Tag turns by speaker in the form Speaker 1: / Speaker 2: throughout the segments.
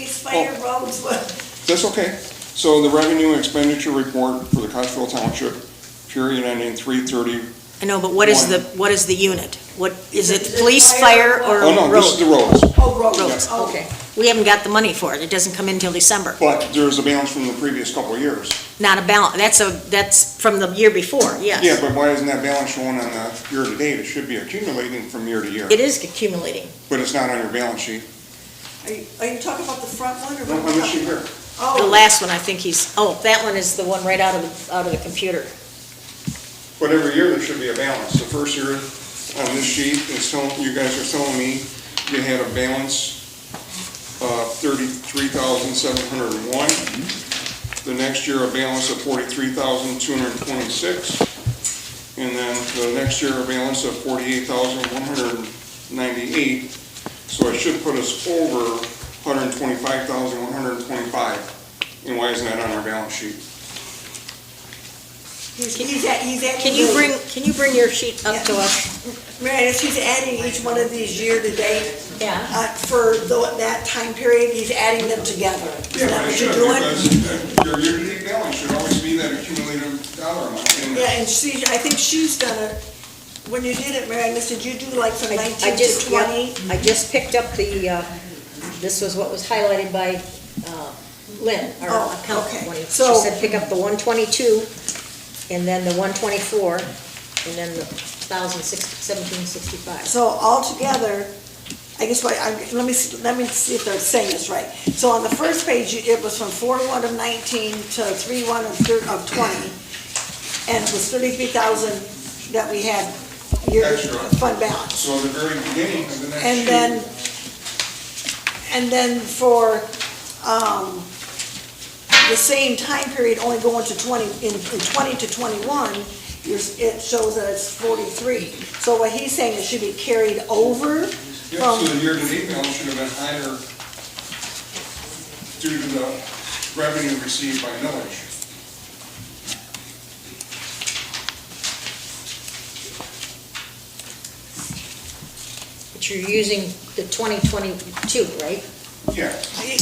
Speaker 1: way your roads were.
Speaker 2: That's okay. So the revenue and expenditure report for the Cottrell Township, period ending three thirty.
Speaker 3: I know, but what is the, what is the unit? What, is it police, fire, or
Speaker 2: Oh, no, this is the
Speaker 3: road?
Speaker 2: roads,
Speaker 1: Oh, roads,
Speaker 3: Roads,
Speaker 1: oh.
Speaker 3: okay. We haven't got the money for it, it doesn't come in till December.
Speaker 2: but there's a balance from the previous couple of years.
Speaker 3: Not a balance, that's a, that's from the year before,
Speaker 2: Yeah,
Speaker 3: yes.
Speaker 2: but why isn't that balance showing on the year-to-date? It should be accumulating from year to year,
Speaker 3: It is accumulating.
Speaker 2: but it's not on your balance sheet.
Speaker 1: Are you, are you talking about the front one or?
Speaker 2: No,
Speaker 1: what
Speaker 2: on
Speaker 1: you
Speaker 2: this sheet here.
Speaker 3: The
Speaker 1: Oh,
Speaker 3: last one, I think he's, oh, that one is the one right out of, the out of the computer.
Speaker 2: But every year, there should be a balance. The first year on this sheet, is telling, you guys are telling me you had a balance of thirty-three thousand seven hundred and one. The next year, a balance of forty-three thousand two hundred and twenty-six. And then the next year, a balance of forty-eight thousand one hundred and ninety-eight. So it should put us over hundred and twenty-five thousand one hundred and twenty-five. And why isn't that on our balance sheet?
Speaker 1: he's, he's at, he's at.
Speaker 3: Can you bring, can you bring your sheet up to us?
Speaker 1: Meredith, he's adding each one of these year-to-date.
Speaker 3: Yeah.
Speaker 1: Uh, for tho- that time period, he's adding them together. Is
Speaker 2: Yeah,
Speaker 1: that
Speaker 2: but it
Speaker 1: what
Speaker 2: should,
Speaker 1: you're doing?
Speaker 2: because uh, your year-to-date balance should always be that accumulated dollar amount. and-
Speaker 1: Yeah, and she, I think she's done it, when you did it, Meredith, did you do like from
Speaker 3: I- I
Speaker 1: nineteen to
Speaker 3: just- yeah,
Speaker 1: twenty?
Speaker 3: I just picked up the, uh, this was what was highlighted by uh, Lynn, our
Speaker 1: Oh,
Speaker 3: accountant.
Speaker 1: okay.
Speaker 3: when She
Speaker 1: So-
Speaker 3: said pick up the 122, and then the 124, and then the 1,1765.
Speaker 1: So altogether, I guess what, I'm, let me, see- let me see if they're saying this right. So on the first page, you- it was from four one of nineteen to three one of thir, of twenty, and it was thirty-three thousand that we had year,
Speaker 2: Extra.
Speaker 1: fund balance.
Speaker 2: So the very beginning of the next sheet.
Speaker 1: And then, and then for, um, the same time period, only going to twenty, in, in twenty to twenty-one, you're, it shows that it's forty-three. So what he's saying, it should be carried over
Speaker 2: Yeah,
Speaker 1: from
Speaker 2: so the year-to-date balance should have been higher due to the revenue received by millage.
Speaker 3: But you're using the 2022, right?
Speaker 2: Yeah.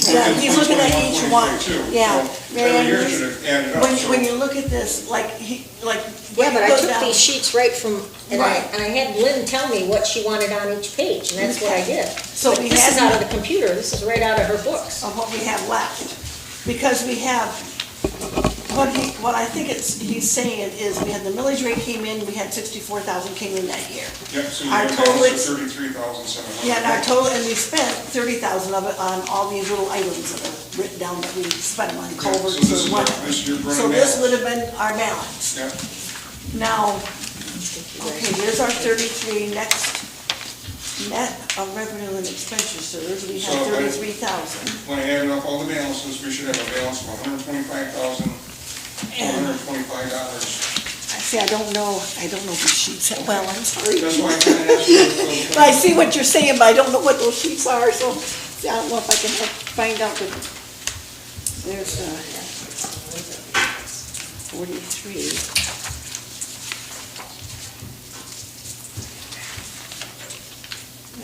Speaker 1: Yeah, he's looking at each one,
Speaker 2: 21.22,
Speaker 1: yeah.
Speaker 2: so Every year should
Speaker 1: Man,
Speaker 2: have added up.
Speaker 1: When,
Speaker 2: so-
Speaker 1: when you look at this, like, he, like.
Speaker 3: Yeah, but I
Speaker 1: goes
Speaker 3: took
Speaker 1: down-
Speaker 3: these sheets right from, and I,
Speaker 1: Right.
Speaker 3: and I had Lynn tell me what she wanted on each page, and that's what I did.
Speaker 1: So
Speaker 3: But
Speaker 1: we
Speaker 3: This
Speaker 1: had-
Speaker 3: is out of the computer, this is right out of her books.
Speaker 1: Of what we have left, because we have, what he, what I think it's, he's saying is, we had the millage rate came in, we had sixty-four thousand came in that year.
Speaker 2: Yep, so you
Speaker 1: our
Speaker 2: have a balance
Speaker 1: total-
Speaker 2: of thirty-three thousand seven hundred.
Speaker 1: Yeah, and our total, and we spent thirty thousand of it on all these little items that are written down that we spent on culverts
Speaker 2: So this is
Speaker 1: and
Speaker 2: what-
Speaker 1: whatnot.
Speaker 2: this is your running
Speaker 1: So this
Speaker 2: balance.
Speaker 1: would have been our balance.
Speaker 2: Yeah,
Speaker 1: Now, okay, here's our thirty-three, next, net of revenue and expenditures, we have
Speaker 2: So, I-
Speaker 1: thirty-three thousand.
Speaker 2: when I added up all the balances, we should have a balance of one hundred twenty-five thousand, one
Speaker 1: And
Speaker 2: hundred twenty-five dollars.
Speaker 1: I see, I don't know, I don't know these sheets that well, I'm sorry.
Speaker 2: That's why I kinda asked you if those-
Speaker 1: But I see what you're saying, but I don't know what those sheets are, so I don't know if I can help find out, but there's, uh, forty-three.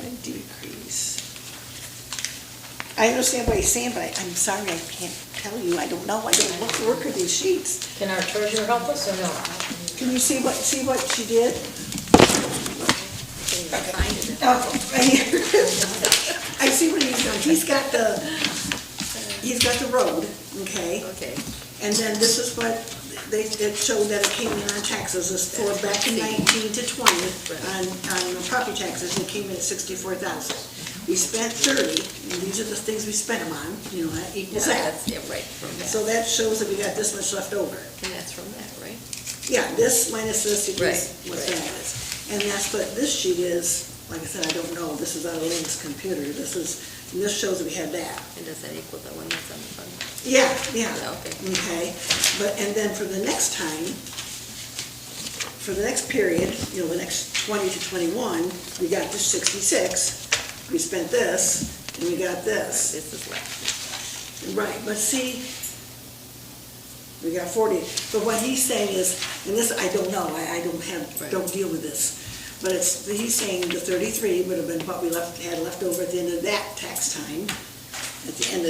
Speaker 1: And decrease. I understand what you're saying, but I, I'm sorry, I can't tell you, I don't know, I don't look, work with these sheets.
Speaker 3: Can our treasurer help us or no?
Speaker 1: Can you see what, see what she did?
Speaker 3: Find it.
Speaker 1: Oh, right here. I see what he's doing. He's got the, he's got the road, okay?
Speaker 3: Okay.
Speaker 1: And then this is what, they, it showed that it came in on taxes, it's for back in nineteen to twenty, on, on the property taxes, it came in at sixty-four thousand. We spent thirty, and these are the things we spent them on, you know, that equals that.
Speaker 4: That's, yeah, right, from that,
Speaker 1: So that shows that we got this much left over.
Speaker 4: and that's from that, right?
Speaker 1: Yeah, this minus this equals
Speaker 4: Right,
Speaker 1: what
Speaker 4: right.
Speaker 1: that is. And that's what this sheet is, like I said, I don't know, this is out of Lynn's computer, this is, and this shows that we had that.
Speaker 4: And does that equal the one that's on the front?
Speaker 1: Yeah, yeah.
Speaker 4: Yeah, okay.
Speaker 1: Okay, but, and then for the next time, for the next period, you know, the next twenty to twenty-one, we got the sixty-six, we spent this, and we got this.
Speaker 4: This is left.
Speaker 1: Right, but see, we got forty, but what he's saying is, and this, I don't know, I, I don't have,
Speaker 4: Right.
Speaker 1: don't deal with this. But it's, he's saying the thirty-three would have been what we left, had left over at the end of that tax time, at the end of